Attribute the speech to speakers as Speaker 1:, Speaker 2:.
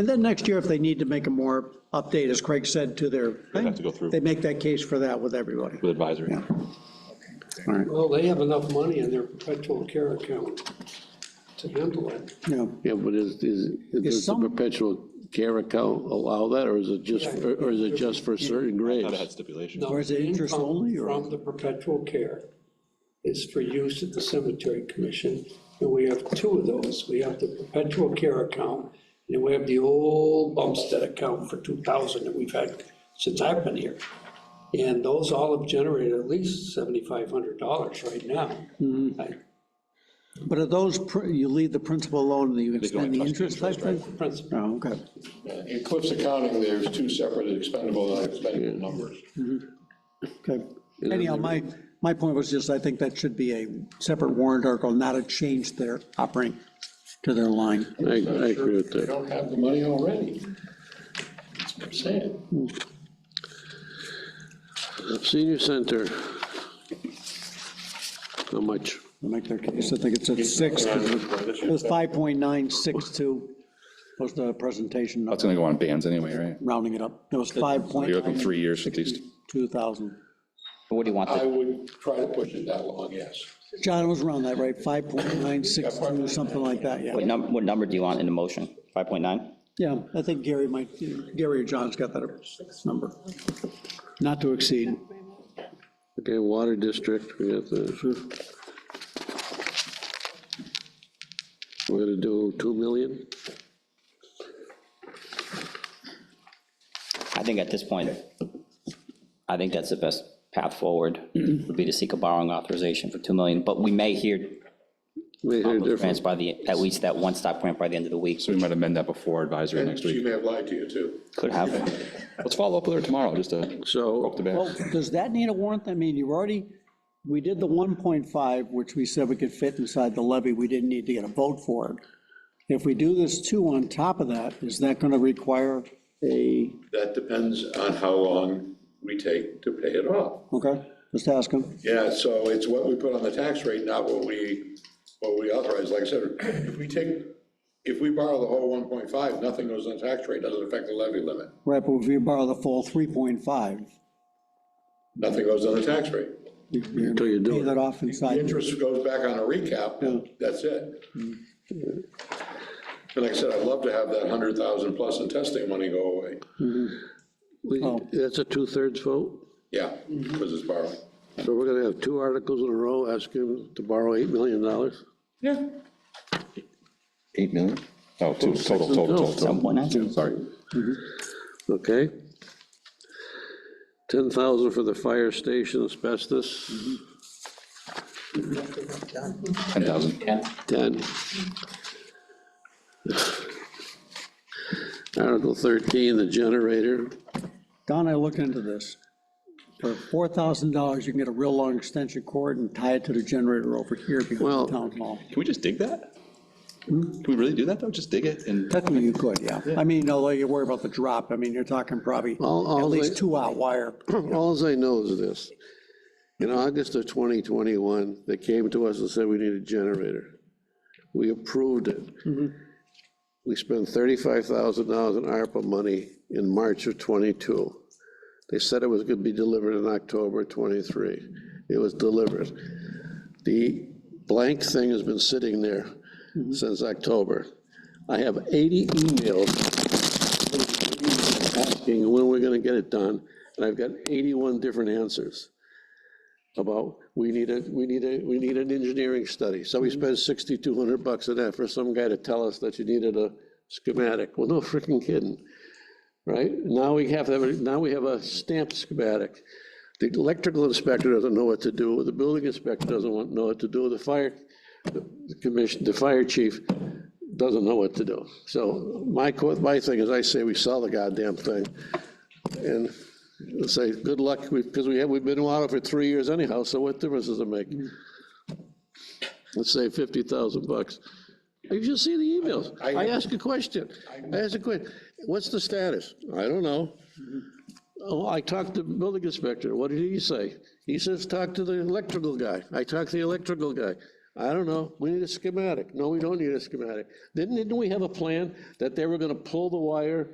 Speaker 1: And then next year, if they need to make a more update, as Craig said, to their
Speaker 2: We'd have
Speaker 1: thing,
Speaker 2: to go through
Speaker 1: they make that case for that with everybody.
Speaker 2: with advisory.
Speaker 1: Yeah. All right,
Speaker 3: Well, they have enough money in their perpetual care account to handle it.
Speaker 1: yeah.
Speaker 4: Yeah, but is, is, does the
Speaker 1: some-
Speaker 4: perpetual care account allow that, or is it just, for- or is it just for certain
Speaker 2: Thought it had
Speaker 4: grades?
Speaker 2: stipulations.
Speaker 3: No,
Speaker 1: Or is it
Speaker 3: the
Speaker 1: interest
Speaker 3: income
Speaker 1: only, or-
Speaker 3: From the perpetual care is for use at the cemetery commission, and we have two of those. We have the perpetual care account, and we have the old Bumstead account for two thousand that we've had since I've been here. And those all have generated at least seventy-five hundred dollars right now.
Speaker 1: Hmm.
Speaker 3: I-
Speaker 1: But are those, pr- you leave the principal alone and you
Speaker 2: go in
Speaker 1: extend the
Speaker 2: trust
Speaker 1: interest type thing?
Speaker 3: Principal,
Speaker 1: Oh, okay.
Speaker 5: In Cliff's accounting, there's two separate expendable and unexpendable numbers.
Speaker 1: Okay. Anyhow, my, my point was just, I think that should be a separate warrant article, not a change to their operating, to their line.
Speaker 4: I, I agree with
Speaker 5: They
Speaker 4: that.
Speaker 5: don't have the money already. That's what I'm saying.
Speaker 4: Senior center. How much?
Speaker 1: I'll Make their case, I think it's at six, 'cause it was 5.962, was the presentation,
Speaker 2: That's gonna go on bands anyway, right?
Speaker 1: rounding it up. It was
Speaker 2: You're looking
Speaker 1: 5.9,
Speaker 2: three years at least.
Speaker 1: 2,000.
Speaker 6: What do you want?
Speaker 5: I
Speaker 6: the-
Speaker 5: would try to push it that long, yes.
Speaker 1: John it was around that, right? 5.962, something like that, yeah.
Speaker 6: What number, what number do you want in the motion? 5.9?
Speaker 1: Yeah, I think Gary might, Gary or John's got that number. Not to exceed.
Speaker 4: Okay, water district, we got the. We're gonna do 2 million?
Speaker 6: I think at this point, I think that's the best path forward, would be to seek a borrowing authorization for 2 million, but we may hear
Speaker 4: We hear
Speaker 6: grants
Speaker 4: different.
Speaker 6: by the, at least that one-stop grant by the end of the week,
Speaker 2: So we might amend that before advisory
Speaker 5: And
Speaker 2: next week.
Speaker 5: she may have lied to you, too.
Speaker 6: could have.
Speaker 2: Let's follow up with her tomorrow, just to poke
Speaker 4: So,
Speaker 2: the bear.
Speaker 1: Well, does that need a warrant? I mean, you've already, we did the 1.5, which we said we could fit inside the levy, we didn't need to get a vote for it. If we do this two on top of that, is that going to require a,
Speaker 5: That depends on how long we take to pay it off.
Speaker 1: okay, just ask him.
Speaker 5: Yeah, so it's what we put on the tax rate, not what we, what we authorize. Like I said, if we take, if we borrow the whole 1.5, nothing goes on the tax rate, doesn't affect the levy limit.
Speaker 1: Right, but if you borrow the full 3.5,
Speaker 5: Nothing goes on the tax rate.
Speaker 1: you- you're
Speaker 4: Until you do
Speaker 1: pay
Speaker 4: it.
Speaker 1: that off
Speaker 5: The
Speaker 1: inside.
Speaker 5: interest goes back on a recap, that's it. And like I said, I'd love to have that hundred thousand plus in testing money go away.
Speaker 4: we-
Speaker 1: Oh.
Speaker 4: that's a two-thirds vote?
Speaker 5: Yeah, because it's borrowing.
Speaker 4: So we're gonna have two articles in a row asking to borrow $8 million?
Speaker 5: Yeah.
Speaker 2: Eight million? Oh, two, total, total, total, total.
Speaker 6: 7.9?
Speaker 2: Sorry.
Speaker 4: Okay. 10,000 for the fire station asbestos,
Speaker 2: Ten thousand.
Speaker 4: 10. Article 13, the generator,
Speaker 1: Don, I looked into this. For $4,000, you can get a real long extension cord and tie it to the generator over here behind the
Speaker 4: Well-
Speaker 1: town hall.
Speaker 2: Can we just dig that?
Speaker 6: Hmm?
Speaker 2: Can we really do that, though? Just dig it and,
Speaker 1: Technically, you could, yeah. I mean, although you worry about the drop, I mean, you're talking probably
Speaker 4: All- all
Speaker 1: at least
Speaker 4: the-
Speaker 1: two out wire.
Speaker 4: all I know is this. In August of 2021, they came to us and said we need a generator. We approved it. We spent $35,000 in ARPA money in March of '22. They said it was going to be delivered in October '23. It was delivered. The blank thing has been sitting there since October. I have 80 emails asking when we're going to get it done, and I've got 81 different answers about, we need a, we need a, we need an engineering study. So we spent 6,200 bucks on that for some guy to tell us that you needed a schematic. Well, no freaking kidding, right? Now we have, to have a- now we have a stamped schematic. The electrical inspector doesn't know what to do, the building inspector doesn't want, know what to do, the fire the commission, the fire chief doesn't know what to do. So my, co- my thing is, I say we sell the goddamn thing, and say, good luck, because we have, we've been out for three years anyhow, so what difference does it make? Let's say fifty thousand bucks. You just see the emails.
Speaker 5: I-
Speaker 4: I ask a question. I ask a question. What's the status? I don't know. Oh, I talked to the building inspector. What did he say? He says, talk to the electrical guy. I talked to the electrical guy. I don't know, we need a schematic, no, we don't need a schematic. Didn't, didn't we have a plan that they were gonna pull the wire